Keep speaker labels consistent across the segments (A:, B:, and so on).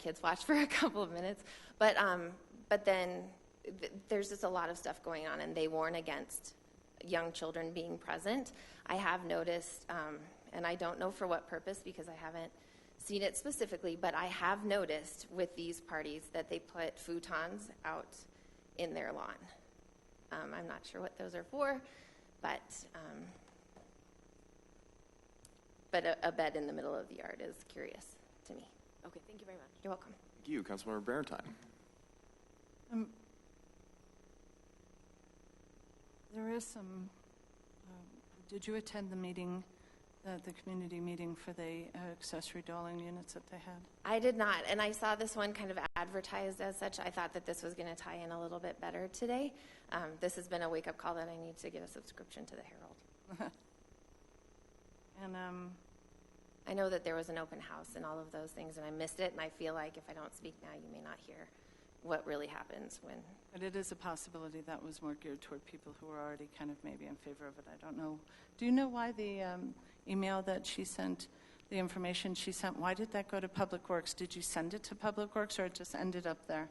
A: kids watch for a couple of minutes. But, um, but then th- there's just a lot of stuff going on, and they warn against young children being present. I have noticed, um, and I don't know for what purpose because I haven't seen it specifically, but I have noticed with these parties that they put futons out in their lawn. Um, I'm not sure what those are for, but um, but a, a bed in the middle of the yard is curious to me.
B: Okay, thank you very much.
A: You're welcome.
C: Thank you, Councilmember Berantine.
D: Um, There is some, um, did you attend the meeting, uh, the community meeting for the uh, accessory dwelling units that they had?
A: I did not, and I saw this one kind of advertised as such. I thought that this was going to tie in a little bit better today. Um, this has been a wake up call that I need to get a subscription to the Herald.
D: And um,
A: I know that there was an open house and all of those things, and I missed it. And I feel like if I don't speak now, you may not hear what really happens when.
D: But it is a possibility that was more geared toward people who were already kind of maybe in favor of it. I don't know. Do you know why the um, email that she sent, the information she sent, why did that go to Public Works? Did you send it to Public Works or it just ended up there?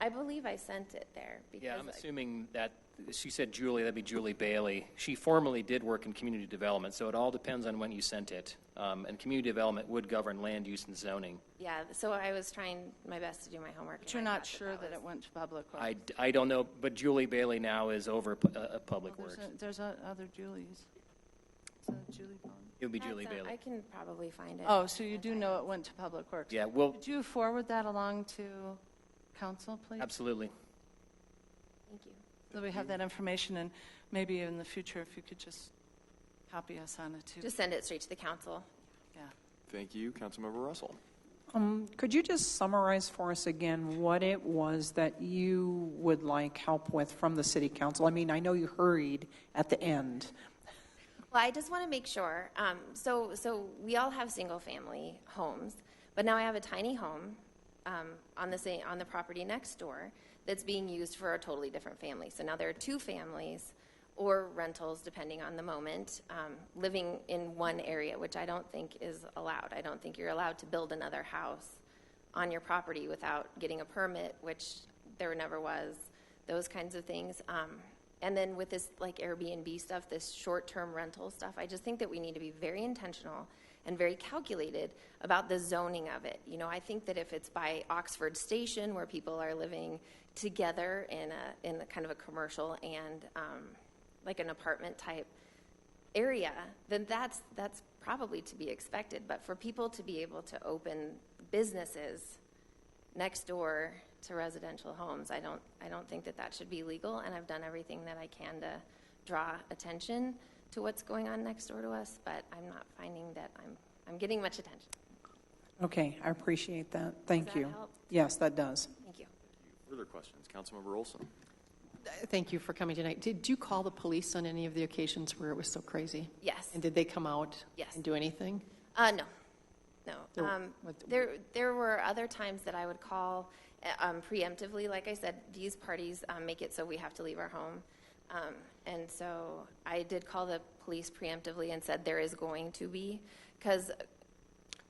A: I believe I sent it there because
E: Yeah, I'm
A: like,
E: assuming that, she said Julie, that'd be Julie Bailey. She formerly did work in community development, so it all depends on when you sent it. Um, And community development would govern land use and zoning.
A: yeah. So I was trying my best to do my homework.
D: But
A: and
D: you're
A: I
D: not
A: thought
D: sure that
A: was-
D: it went to Public Works?
E: I, I don't know, but Julie Bailey now is over pu- uh, uh, Public
D: Well,
E: Works.
D: Oh, there's a- There's a- other Julies. Is that Julie Bond?
E: It would be Julie
A: That's, uh, I
E: Bailey.
A: can probably find it.
D: Oh, so you do know it went to Public Works?
E: Yeah, well,
D: Would you forward that along to council, please?
E: absolutely.
A: Thank you.
D: So we have that information, and maybe in the future, if you could just copy us on it, too.
A: Just send it straight to the council.
D: Yeah.
C: Thank you, Councilmember Russell.
F: Um, Could you just summarize for us again what it was that you would like help with from the city council? I mean, I know you hurried at the end.
A: Well, I just want to make sure. Um, so, so we all have single-family homes, but now I have a tiny home um, on the same, on the property next door that's being used for a totally different family. So now there are two families or rentals, depending on the moment, um, living in one area, which I don't think is allowed. I don't think you're allowed to build another house on your property without getting a permit, which there never was, those kinds of things. Um, and then with this like Airbnb stuff, this short term rental stuff, I just think that we need to be very intentional and very calculated about the zoning of it. You know, I think that if it's by Oxford Station where people are living together in a in a kind of a commercial and um, like an apartment type area, then that's, that's probably to be expected. But for people to be able to open businesses next door to residential homes, I don't, I don't think that that should be legal. And I've done everything that I can to draw attention to what's going on next door to us, but I'm not finding that I'm, I'm getting much attention.
F: Okay, I appreciate that. Thank
A: Does that
F: you.
A: help?
F: Yes, that does.
A: Thank you.
C: Further questions? Councilmember Olson.
G: Thank you for coming tonight. Did you call the police on any of the occasions where it was so crazy?
A: Yes.
G: And did they come out?
A: Yes.
G: And do anything?
A: Uh, no,
G: There-
A: no. Um,
G: Oh, what-
A: there, there were other times that I would call uh, um, preemptively. Like I said, these parties um, make it so we have to leave our home. Um, and so I did call the police preemptively and said there is going to be, because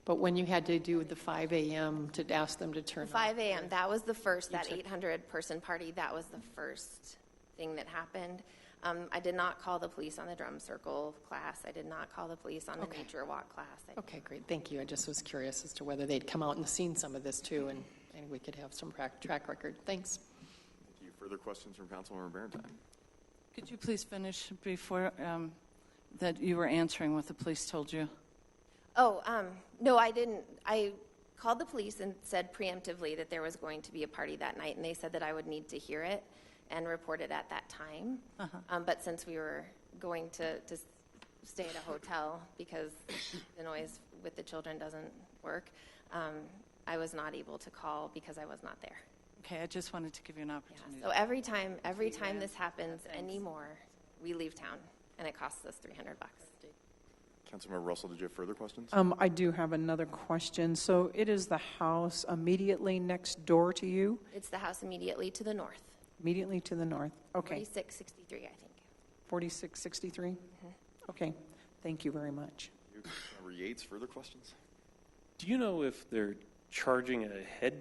G: But when you had to do the 5 AM to ask them to turn off?
A: 5 a.m., that was the first, that 800 person party, that was the first thing that happened. Um, I did not call the police on the drum circle class. I did not call the police on the
G: Okay.
A: nature walk class. I
G: Okay, great, thank you. I just was curious as to whether they'd come out and seen some of this too, and, and we could have some prac- track record. Thanks.
C: Thank you. Further questions from Councilmember Berantine.
D: Could you please finish before, um, that you were answering what the police told you?
A: Oh, um, no, I didn't. I called the police and said preemptively that there was going to be a party that night, and they said that I would need to hear it and report it at that time. Um, but since we were going to, to stay at a hotel because the noise with the children doesn't work, um, I was not able to call because I was not there.
D: Okay, I just wanted to give you an
A: Yeah,
D: opportunity.
A: so every time, every time this happens anymore, we leave town, and it costs us 300 bucks.
C: Councilmember Russell, did you have further questions?
F: Um, I do have another question. So it is the house immediately next door to you,
A: It's the house immediately to the north,
F: immediately to the north? Okay,
A: 4663, I think.
F: 4663?
A: Mm-hmm.
F: Okay, thank you very much.
C: Councilmember Yates, further questions?
H: Do you know if they're charging a head